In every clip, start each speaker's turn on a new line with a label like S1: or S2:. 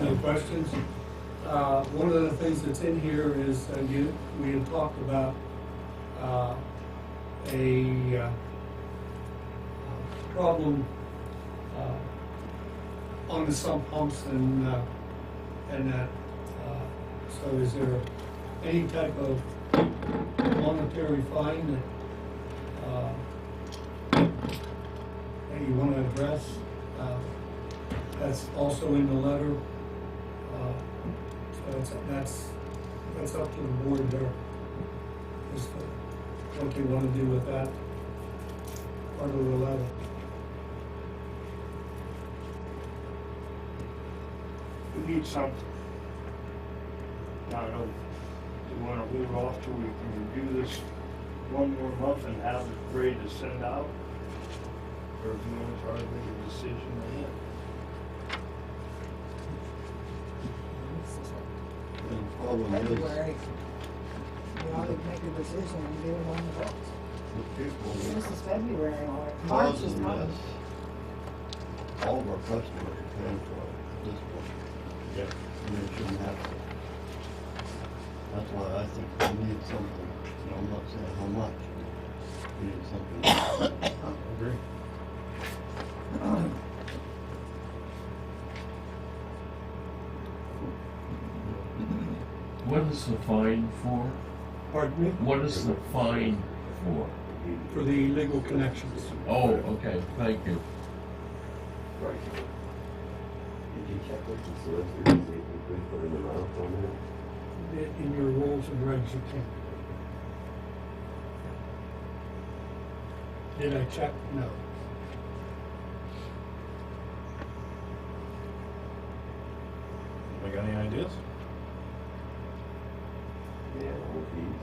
S1: Any questions? Uh, One of the things that's in here is, uh, you, we had talked about uh, a uh, problem uh, on the sump pumps and, uh, and that. Uh, So is there any type of monetary fine that, uh, that you want to address? Uh, That's also in the letter. Uh, So it's, that's, that's up to the board there. Is the- what you want to do with that part of the letter.
S2: We need something. I don't know, you wanna hold it off till we can review this one more month and have it ready to send out? Or do you wanna try to make a decision ahead?
S3: The problem is,
S4: February. We always make a decision and do it on the books.
S3: the people,
S4: This is February or March is
S3: causing
S4: not.
S3: this, all of our customers are paying for it at this point.
S2: Yeah.
S3: And it shouldn't have to. That's why I think we need something, and I'm not saying how much, but we need something.
S2: Agree.
S5: What is the fine for?
S1: Pardon me?
S5: What is the fine for?
S1: For the legal connections.
S5: Oh, okay, thank you.
S6: Right. Did you check with the solicitor to see if we could put an amount on that?
S1: In your rules and regs, you can. Did I check? No.
S2: Got any ideas?
S6: Man, all fees,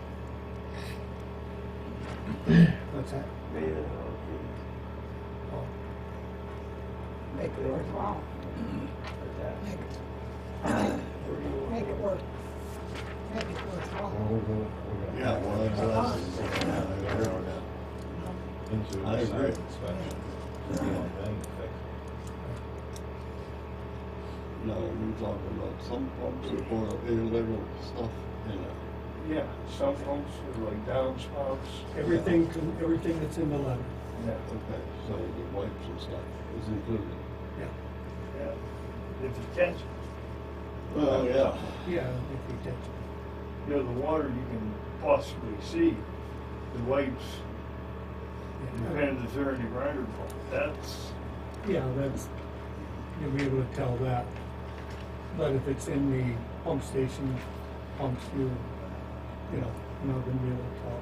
S1: What's that?
S6: man, all fees,
S1: Oh,
S4: Make it worthwhile.
S6: like that.
S4: Make
S6: Or do you
S4: it,
S6: want-
S4: make it work. Make it worthwhile.
S3: Yeah, well, that's what I was saying. Yeah, I agree with that. I agree. No, we're talking about some pumps or illegal stuff, you know.
S2: Yeah, some pumps are like downspouts.
S1: Everything, con- everything that's in the letter.
S2: Yeah.
S3: Okay, so the wipes and stuff is included.
S2: Yeah. If it's catch,
S3: Well, yeah.
S1: Yeah, if we did.
S2: you know, the water you can possibly see, the wipes,
S1: Yeah.
S2: depends if they're in the grinder pump, that's.
S1: Yeah, that's, you'll be able to tell that. But if it's in the pump station, pumps, you, you know, you're not gonna be able to tell.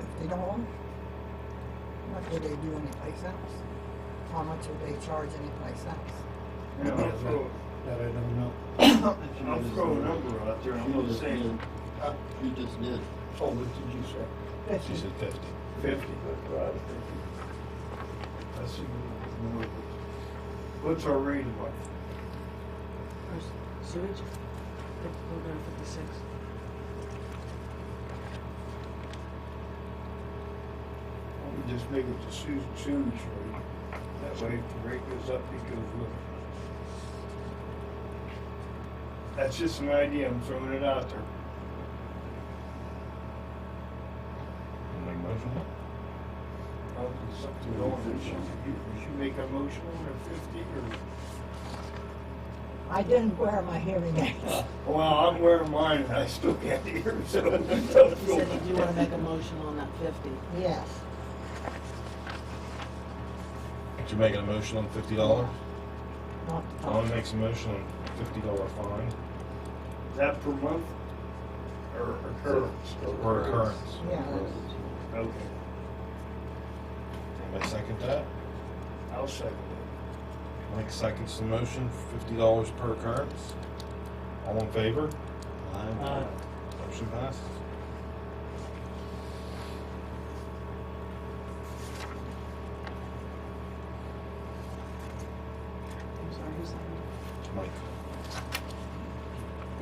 S4: If they don't want it, what would they do anyplace else? How much would they charge anyplace else?
S2: You know, I'll throw,
S1: That I don't know.
S2: I'll throw a number out there, I'm
S3: You
S2: gonna
S3: just
S2: say,
S3: did.
S7: uh,
S3: You just did.
S2: oh, what did you say?
S4: She said.
S2: Fifty.
S6: That's what I was thinking.
S2: That's even more. What's our rate of life?
S8: Our s- sewage, we're going to fifty-six.
S2: Why don't We just make it to sewage, sewage rate. That way if the rate goes up, it goes with it. That's just an idea, I'm throwing it out there. I'll do something going, we should, we should make a motion or fifty or?
S4: I didn't wear my hearing aids.
S2: Well, I'm wearing mine and I still can't hear, so.
S8: You said that you want to make a motion on that fifty.
S4: Yes.
S7: You're making a motion on fifty dollars?
S4: Not the
S3: Oh,
S7: Alan
S4: top.
S7: makes a motion on fifty dollar fine
S2: Is that per month? Or occurrence?
S7: per occurrence.
S4: Yeah, that's-
S2: Okay,
S7: Anybody second that?
S2: I'll second it.
S7: Mike seconds the motion, fifty dollars per occurrence. All in favor?
S3: I,
S1: Uh,
S7: Motion passes.
S8: I'm sorry, who's that?
S7: Mike,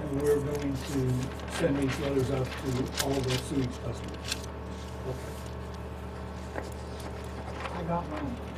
S1: And we're going to send these letters out to all the sewage customers.
S4: I got mine.